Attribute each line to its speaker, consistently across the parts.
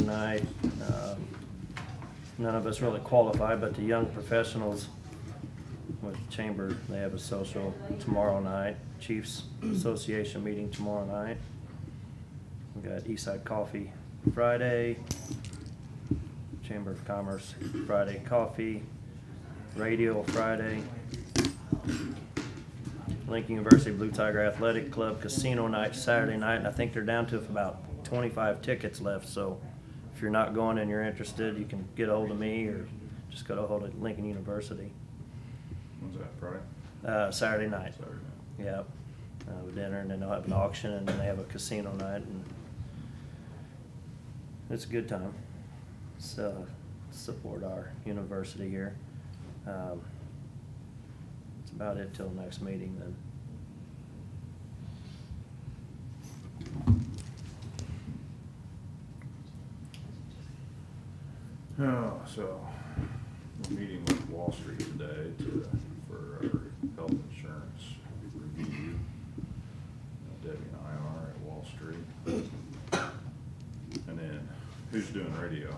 Speaker 1: tonight. Um, None of us really qualify, but the young professionals with Chamber, they have a social tomorrow night. Chiefs Association meeting tomorrow night. We got Eastside Coffee Friday, Chamber of Commerce Friday Coffee, Radio Friday, Lincoln University Blue Tiger Athletic Club Casino Night Saturday night, and I think they're down to about twenty-five tickets left, so if you're not going and you're interested, you can get ahold of me or just go to hold of Lincoln University,
Speaker 2: When's that, Friday?
Speaker 1: uh, Saturday night.
Speaker 2: Saturday night.
Speaker 1: Yep, uh, with dinner, and then they'll have an auction, and then they have a casino night, and it's a good time. So, support our university here. Um, That's about it till next meeting then.
Speaker 2: Oh, so, we're meeting with Wall Street today to, for our health insurance review. Uh, Debbie and I are at Wall Street. And then, who's doing radio?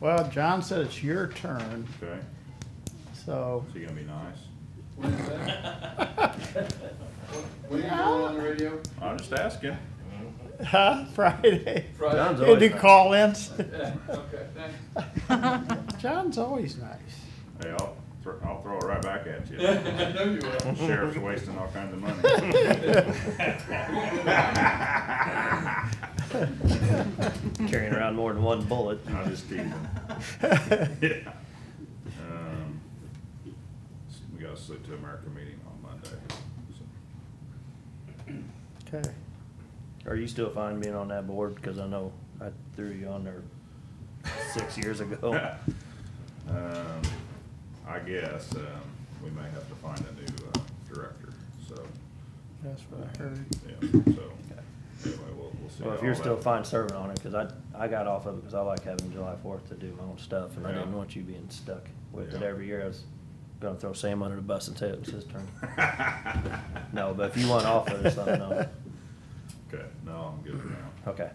Speaker 3: Well, John said it's your turn,
Speaker 2: Okay,
Speaker 3: so.
Speaker 2: is he gonna be nice?
Speaker 4: What is that? What are you doing on the radio?
Speaker 2: I'm just asking.
Speaker 3: Huh? Friday?
Speaker 4: Friday?
Speaker 1: John's
Speaker 3: They do
Speaker 1: nice.
Speaker 3: call-ins?
Speaker 4: Yeah, okay, thanks.
Speaker 3: John's always nice.
Speaker 2: Hey, I'll, thr- I'll throw it right back at you.
Speaker 4: I know you will.
Speaker 2: Sheriff's wasting all kinds of money.
Speaker 1: Carrying around more than one bullet.
Speaker 2: I'll just keep them. Yeah. Um, s- We got a Sleep to America meeting on Monday. so.
Speaker 3: Okay.
Speaker 1: Are you still fine being on that board? Because I know I threw you on there six years ago.
Speaker 2: Um, I guess, um, we may have to find a new, uh, director, so.
Speaker 3: That's what I heard.
Speaker 2: Yeah, so, anyway, we'll, we'll see.
Speaker 1: Well, if
Speaker 2: how
Speaker 1: you're
Speaker 2: that-
Speaker 1: still fine serving on it, because I, I got off of it because I like having July fourth to do my own stuff, and I didn't
Speaker 2: Yeah.
Speaker 1: want you being stuck with it
Speaker 2: Yeah.
Speaker 1: every year. I was gonna throw Sam under the bus and say it was his turn. No, but if you want off of it, let me know.
Speaker 2: Okay, no, I'm good for now.
Speaker 1: Okay,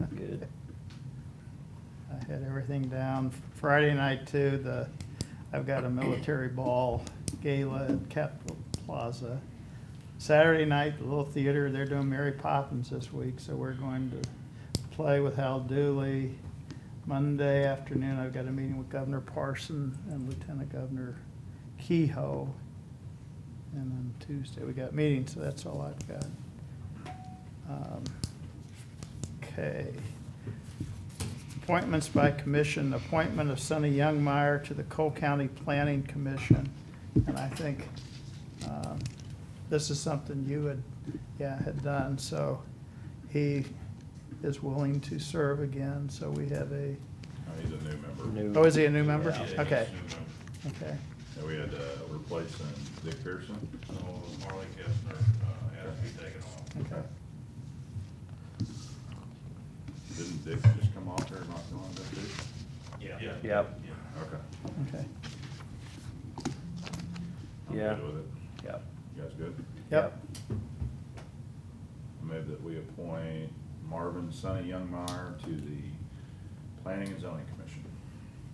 Speaker 2: So,
Speaker 1: good.
Speaker 3: I had everything down. Friday night too, the, I've got a military ball gala at Capitol Plaza. Saturday night, the little theater, they're doing Mary Poppins this week, so we're going to play with Hal Dooley. Monday afternoon, I've got a meeting with Governor Parson and Lieutenant Governor Kehoe. And then Tuesday, we got meetings, so that's all I've got. Um, Okay. Appointments by commission, appointment of Sonny Youngmeyer to the Cole County Planning Commission. And I think um, this is something you had, yeah, had done, so he is willing to serve again, so we have a,
Speaker 2: no, he's a new member.
Speaker 1: New-
Speaker 3: oh, is he a new member?
Speaker 2: Yeah, he's a
Speaker 3: Okay,
Speaker 2: new member.
Speaker 3: okay.
Speaker 2: And we had, uh, replacing Dick Pearson.
Speaker 5: So Marley Kestner, uh, has to be taken off.
Speaker 3: Okay.
Speaker 2: Didn't Dick just come off there, not going to too?
Speaker 5: Yeah.
Speaker 1: Yep.
Speaker 5: Yeah.
Speaker 2: Okay.
Speaker 3: Okay.
Speaker 2: I'm
Speaker 1: Yeah.
Speaker 2: good with it.
Speaker 1: Yep.
Speaker 2: You guys good?
Speaker 3: Yep,
Speaker 2: I Move that we appoint Marvin Sonny Youngmeyer to the Planning and Zoning Commission.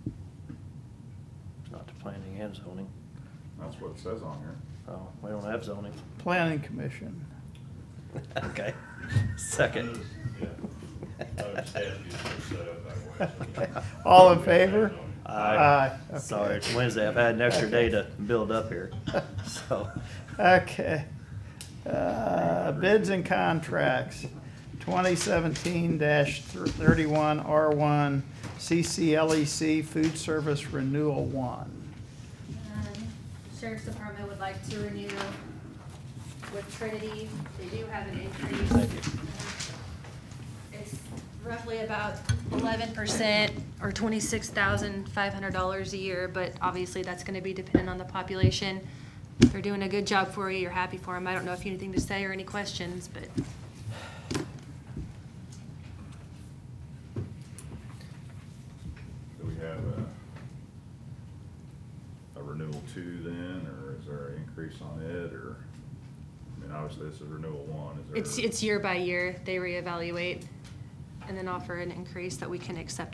Speaker 1: It's Not to planning and zoning.
Speaker 2: That's what it says on here.
Speaker 1: Oh, we don't have zoning.
Speaker 3: Planning Commission.
Speaker 1: Okay, second.
Speaker 5: Yeah. I understand you uh, set up that way. so-
Speaker 3: Okay. All in favor?
Speaker 1: Aye.
Speaker 3: Aye,
Speaker 1: Sorry,
Speaker 3: okay.
Speaker 1: it's Wednesday. I've had an extra day to build up here, so.
Speaker 3: Okay. Uh, Bids and contracts, 2017-31 R1, CCLEC E Food Service Renewal 1.
Speaker 6: Um, Sheriff's Department would like to renew with Trinity. They do have an increase. It's roughly about eleven percent or twenty-six thousand five hundred dollars a year, but obviously that's gonna be dependent on the population. If They're doing a good job for you, you're happy for them. I don't know if you have anything to say or any questions, but
Speaker 2: Do we have a, a renewal two then, or is there an increase on it, or? I mean, obviously this is renewal one, is there?
Speaker 6: it's, it's year by year. They reevaluate and then offer an increase that we can accept